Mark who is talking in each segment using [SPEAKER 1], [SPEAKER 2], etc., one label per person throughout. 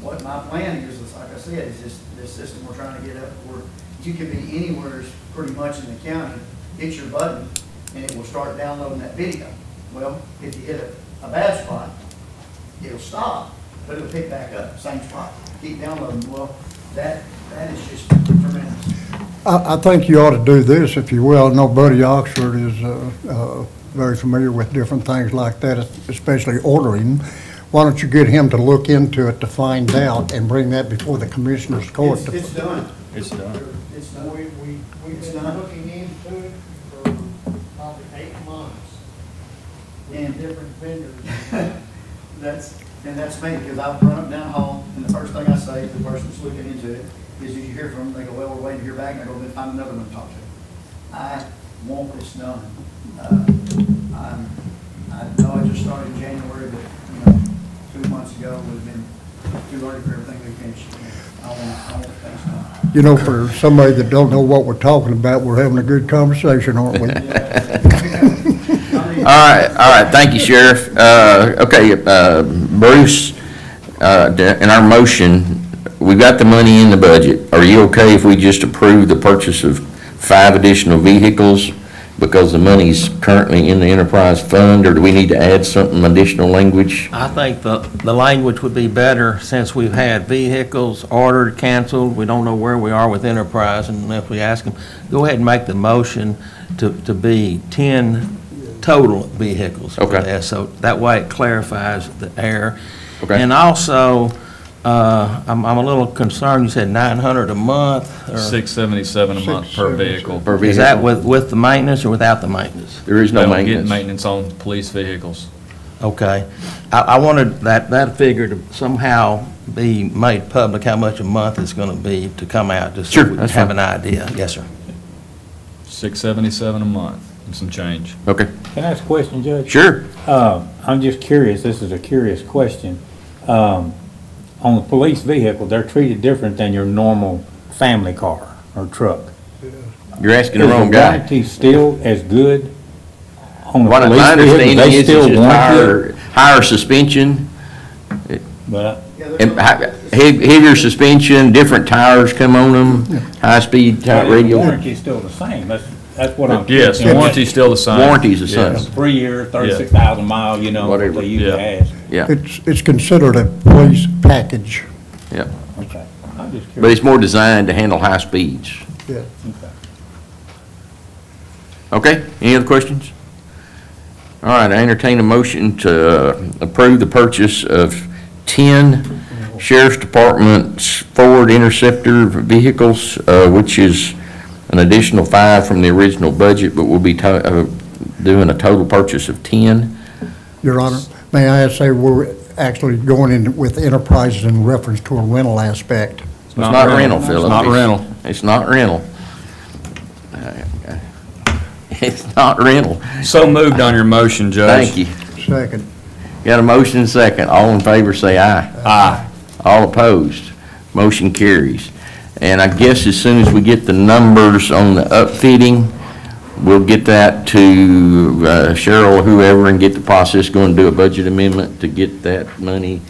[SPEAKER 1] what my plan is, is like I said, is this, this system we're trying to get up where you could be anywhere pretty much in the county, hit your button, and it will start downloading that video. Well, if you hit a, a bad spot, it'll stop, but it'll pick back up, same spot, keep downloading. Well, that, that is just tremendous.
[SPEAKER 2] I, I think you ought to do this, if you will. Nobody Oxford is uh, uh, very familiar with different things like that, especially ordering. Why don't you get him to look into it to find out and bring that before the commissioners court?
[SPEAKER 1] It's,
[SPEAKER 2] to-
[SPEAKER 1] it's done.
[SPEAKER 3] It's done.
[SPEAKER 1] It's
[SPEAKER 4] We, we,
[SPEAKER 1] done.
[SPEAKER 4] we've
[SPEAKER 1] It's
[SPEAKER 4] been
[SPEAKER 1] not-
[SPEAKER 4] looking into it for probably eight months
[SPEAKER 1] And-
[SPEAKER 4] with different vendors.
[SPEAKER 1] That's, and that's me, because I've run up down the hall, and the first thing I say to the person that's looking into it is, if you hear from them, they go, well, we're waiting to hear back, and I go, then find another one to talk to. I want this done. Uh, I'm, I know I just started in January, but, you know, two months ago, would have been too early for everything to finish. I want, I want things done.
[SPEAKER 2] You know, for somebody that don't know what we're talking about, we're having a good conversation, aren't we?
[SPEAKER 1] Yeah. I mean,
[SPEAKER 5] All right, all right, thank you, Sheriff. Uh, Okay, uh, Bruce, uh, in our motion, we've got the money in the budget. Are you okay if we just approve the purchase of five additional vehicles because the money's currently in the enterprise fund, or do we need to add something, additional language?
[SPEAKER 6] I think the, the language would be better since we've had vehicles ordered, canceled. We don't know where we are with Enterprise, and if we ask them, go ahead and make the motion to, to be 10 total vehicles. for
[SPEAKER 5] Okay.
[SPEAKER 6] this. So that way it clarifies the air.
[SPEAKER 5] Okay.
[SPEAKER 6] And also, uh, I'm, I'm a little concerned, you said 900 a month? or-
[SPEAKER 3] 677 a month per vehicle.
[SPEAKER 5] Per
[SPEAKER 6] Is that
[SPEAKER 5] vehicle?
[SPEAKER 6] with, with the maintenance or without the maintenance?
[SPEAKER 5] There is
[SPEAKER 3] They
[SPEAKER 5] no
[SPEAKER 3] don't get
[SPEAKER 5] maintenance.
[SPEAKER 3] maintenance on police vehicles.
[SPEAKER 6] Okay. I, I wanted that, that figure to somehow be made public, how much a month it's going to be to come out, just so
[SPEAKER 5] Sure,
[SPEAKER 6] we
[SPEAKER 5] that's
[SPEAKER 6] have
[SPEAKER 5] fine.
[SPEAKER 6] an idea. Yes, sir.
[SPEAKER 3] 677 a month and some change.
[SPEAKER 5] Okay,
[SPEAKER 7] Can I ask a question, Judge?
[SPEAKER 5] sure.
[SPEAKER 7] Uh, I'm just curious, this is a curious question. Um, On the police vehicle, they're treated different than your normal family car or truck.
[SPEAKER 5] You're asking the wrong
[SPEAKER 7] Is the
[SPEAKER 5] guy.
[SPEAKER 7] warranty still as good on the
[SPEAKER 5] What I- My
[SPEAKER 7] police vehicle?
[SPEAKER 5] understanding
[SPEAKER 7] They
[SPEAKER 5] is it's
[SPEAKER 7] still
[SPEAKER 5] just higher,
[SPEAKER 7] warranty?
[SPEAKER 5] higher suspension.
[SPEAKER 7] But
[SPEAKER 1] yeah, there's
[SPEAKER 5] And
[SPEAKER 1] no-
[SPEAKER 5] hi- he- heavier suspension, different tires come on them, high-speed
[SPEAKER 7] but
[SPEAKER 5] type
[SPEAKER 7] the
[SPEAKER 5] radio.
[SPEAKER 7] warranty's still the same, that's, that's what I'm.
[SPEAKER 3] Yes,
[SPEAKER 7] thinking.
[SPEAKER 3] warranty's still the same.
[SPEAKER 5] Warranty's the same.
[SPEAKER 3] Yes.
[SPEAKER 7] Three years, thirty-six thousand mile, you know, what
[SPEAKER 5] Whatever,
[SPEAKER 7] they used to
[SPEAKER 3] yeah.
[SPEAKER 7] ask.
[SPEAKER 5] Yeah,
[SPEAKER 2] It's, it's considered a police package.
[SPEAKER 5] yeah.
[SPEAKER 7] Okay, I'm just
[SPEAKER 5] But
[SPEAKER 7] curious.
[SPEAKER 5] it's more designed to handle high speeds.
[SPEAKER 2] Yeah.
[SPEAKER 7] Okay.
[SPEAKER 5] Okay, any other questions? All right, I entertain a motion to uh, approve the purchase of 10 Sheriff's Department's Ford Interceptor vehicles, uh, which is an additional five from the original budget, but we'll be to- uh, doing a total purchase of 10.
[SPEAKER 2] Your Honor, may I say, we're actually going in with enterprises in reference to a rental aspect.
[SPEAKER 5] It's not rental,
[SPEAKER 3] It's
[SPEAKER 5] Philip.
[SPEAKER 3] not rental.
[SPEAKER 5] It's not rental. It's not rental.
[SPEAKER 3] So moved on your motion, Judge.
[SPEAKER 5] Thank you.
[SPEAKER 2] Second.
[SPEAKER 5] Got a motion and second. All in favor, say aye. Aye. All opposed. Motion carries. And I guess as soon as we get the numbers on the upfitting, we'll get that to uh, Cheryl, or whoever, and get the process going, do a budget amendment to get that money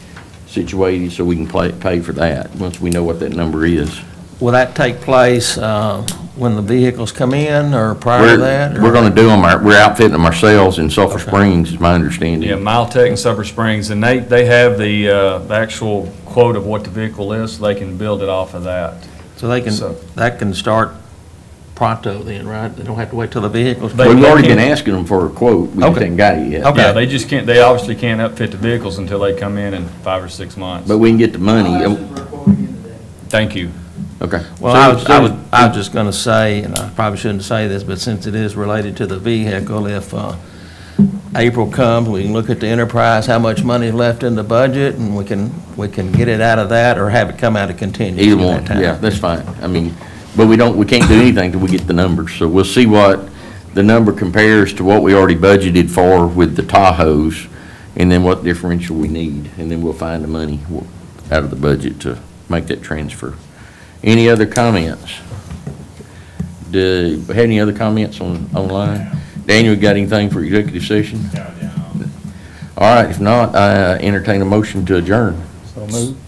[SPEAKER 5] situated so we can play- pay for that, once we know what that number is.
[SPEAKER 6] Will that take place uh, when the vehicles come in or prior to that?
[SPEAKER 5] We're,
[SPEAKER 6] or-
[SPEAKER 5] we're gonna do them, our- we're outfitting them ourselves in Sulphur
[SPEAKER 6] Okay.
[SPEAKER 5] Springs, is my
[SPEAKER 3] Yeah,
[SPEAKER 5] understanding.
[SPEAKER 3] Miltech and Supper Springs, and they, they have the uh, the actual quote of what the vehicle is, so they can build it off of that.
[SPEAKER 6] So they can,
[SPEAKER 3] So-
[SPEAKER 6] that can start pronto then, right? They don't have to wait till the vehicles?
[SPEAKER 3] They-
[SPEAKER 5] We've already been
[SPEAKER 3] can't-
[SPEAKER 5] asking them for a quote, we just
[SPEAKER 6] Okay.
[SPEAKER 5] ain't got it yet.
[SPEAKER 6] Okay.
[SPEAKER 3] Yeah, they just can't, they obviously can't upfit the vehicles until they come in in five or six months.
[SPEAKER 5] But we can get the money,
[SPEAKER 1] I'll ask
[SPEAKER 5] um,
[SPEAKER 1] them for a quote again today.
[SPEAKER 3] Thank you.
[SPEAKER 5] okay.
[SPEAKER 6] Well, I was, I was, I was just gonna say, and I probably shouldn't say this, but since it is related to the vehicle, if, uh, April comes, we can look at the enterprise, how much money is left in the budget, and we can, we can get it out of that, or have it come out of contingency
[SPEAKER 5] Either
[SPEAKER 6] at
[SPEAKER 5] one,
[SPEAKER 6] that time.
[SPEAKER 5] yeah, that's fine, I mean, but we don't, we can't do anything till we get the numbers, so we'll see what the number compares to what we already budgeted for with the Tahoes, and then what differential we need, and then we'll find the money w- out of the budget to make that transfer. Any other comments? Do, have any other comments on, online? Daniel, you got anything for executive session? All right, if not, I entertain a motion to adjourn.
[SPEAKER 7] So move.